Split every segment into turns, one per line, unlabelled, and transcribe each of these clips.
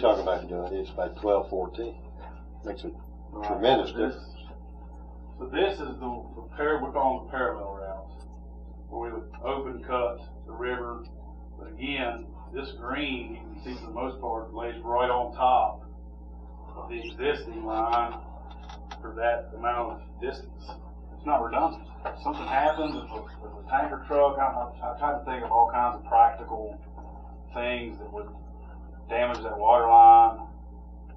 tried to do it, it's about twelve, fourteen. Makes a
Right.
tremendous
This-
difference.
So this is the, the par, we're calling the parallel routes, where we would open cut the river. But again, this green, you can see for the most part, lays right on top of the existing line for that amount of distance. It's not redundant. If something happens, if a, if a tanker truck, I, I, I tried to think of all kinds of practical things that would damage that water line.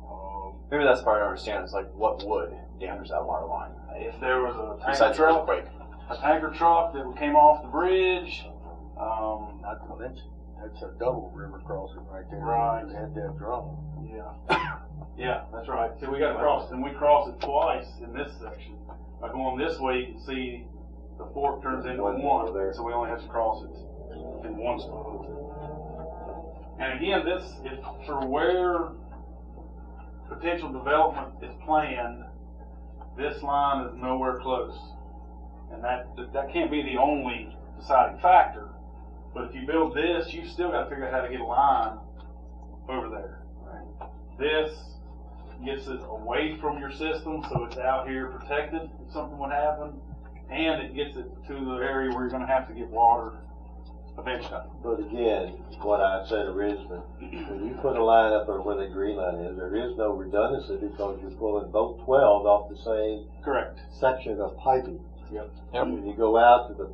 Um,
Maybe that's the part I don't understand. Is like, what would damage that water line
if there was a tanker
besides
truck,
earthquake?
a tanker truck that came off the bridge. Um,
Not to mention, that's a double river crossing right there.
Right.
They Had that drawn.
yeah, yeah, that's right. See, we got to cross, and we cross it twice in this section. By going this way, you can see the fork turns into
One
one,
more there.
so we only have to cross it in one spot. And again, this is for where potential development is planned. This line is nowhere close, and that that can't be the only deciding factor. But if you build this, you've still got to figure out how to get a line over there. This gets it away from your system, so it's out here protected if something would happen, and it gets it to the area where you're going to have to get water eventually.
But again, what I said originally, when you put a line up or where the green line is, there is no redundancy because you're pulling both twelves off the same
Correct.
section of piping.
Yep.
Yep.
When you go out to the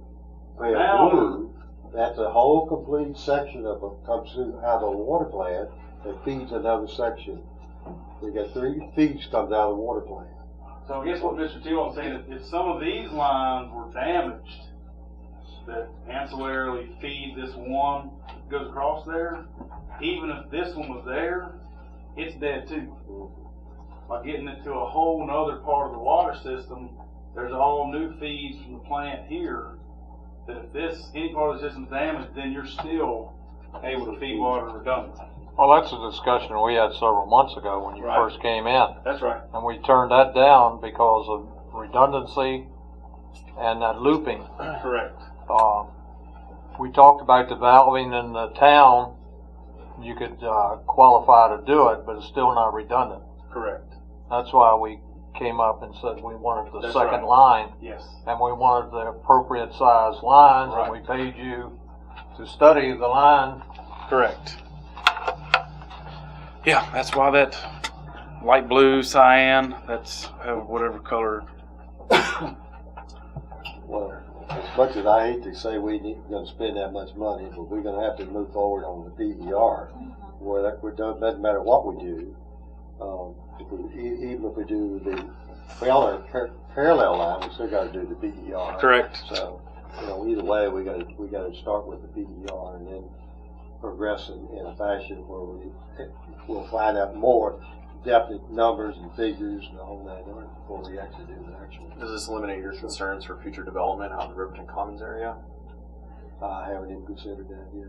pale
Now-
blue, that's a whole complete section of, a- comes through out of a water plant that feeds another section. You got three feeds comes out of the water plant.
So I guess what Mr. Tillman's saying is if some of these lines were damaged that ancillarily feed this one that goes across there, even if this one was there, it's dead too. By getting it to a whole nother part of the water system, there's all new feeds from the plant here that if this, any part of the system's damaged, then you're still able to feed water redundantly.
Well, that's a discussion we had several months ago when you
Right.
first came in,
That's right.
and we turned that down because of redundancy and that looping.
Correct.
Um, we talked about the valving in the town. You could uh, qualify to do it, but it's still not redundant.
Correct.
That's why we came up and said we wanted the
That's
second
right.
line,
Yes.
and we wanted the appropriate size lines,
Right.
and we paid you to study the line.
Correct. Yeah, that's why that light blue, cyan, that's uh, whatever color.
Well, as much as I hate to say we ain't gonna spend that much money, but we're gonna have to move forward on the DVR. Where that, we don't, doesn't matter what we do, um, if we- e- even if we do the parallel, par- parallel line, we still gotta do the DVR.
Correct.
So, you know, either way, we gotta, we gotta start with the PDR and then progress in, in a fashion where we, we'll find out more definite numbers and figures and all that in order before we actually do the actual.
Does this eliminate your concerns for future development out in the Riverton Commons area
I haven't even considered that yet.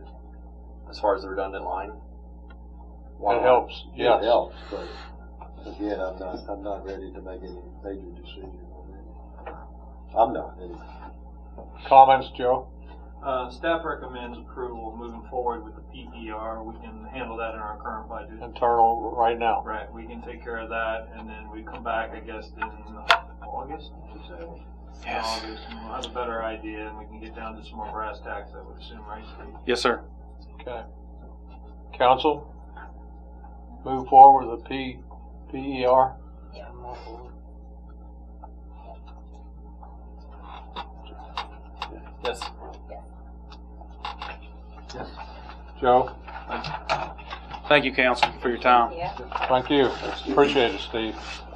as far as the redundant line?
It helps, yes.
It helps, but again, I'm not, I'm not ready to make any major decision on that. I'm not, anyway.
Comments, Joe?
Uh, staff recommends approval moving forward with the PER. We can handle that in our current budget.
internal right now.
Right, we can take care of that, and then we come back, I guess, in August, did you say?
Yes.
August, and we'll have a better idea, and we can get down to some more brass tacks, I would assume, right, Steve?
Yes, sir.
Okay. Council, move forward with the P, E PER.
Yes.
Joe,
Thank you, council, for your time.
Yeah.
thank you. Appreciate it, Steve.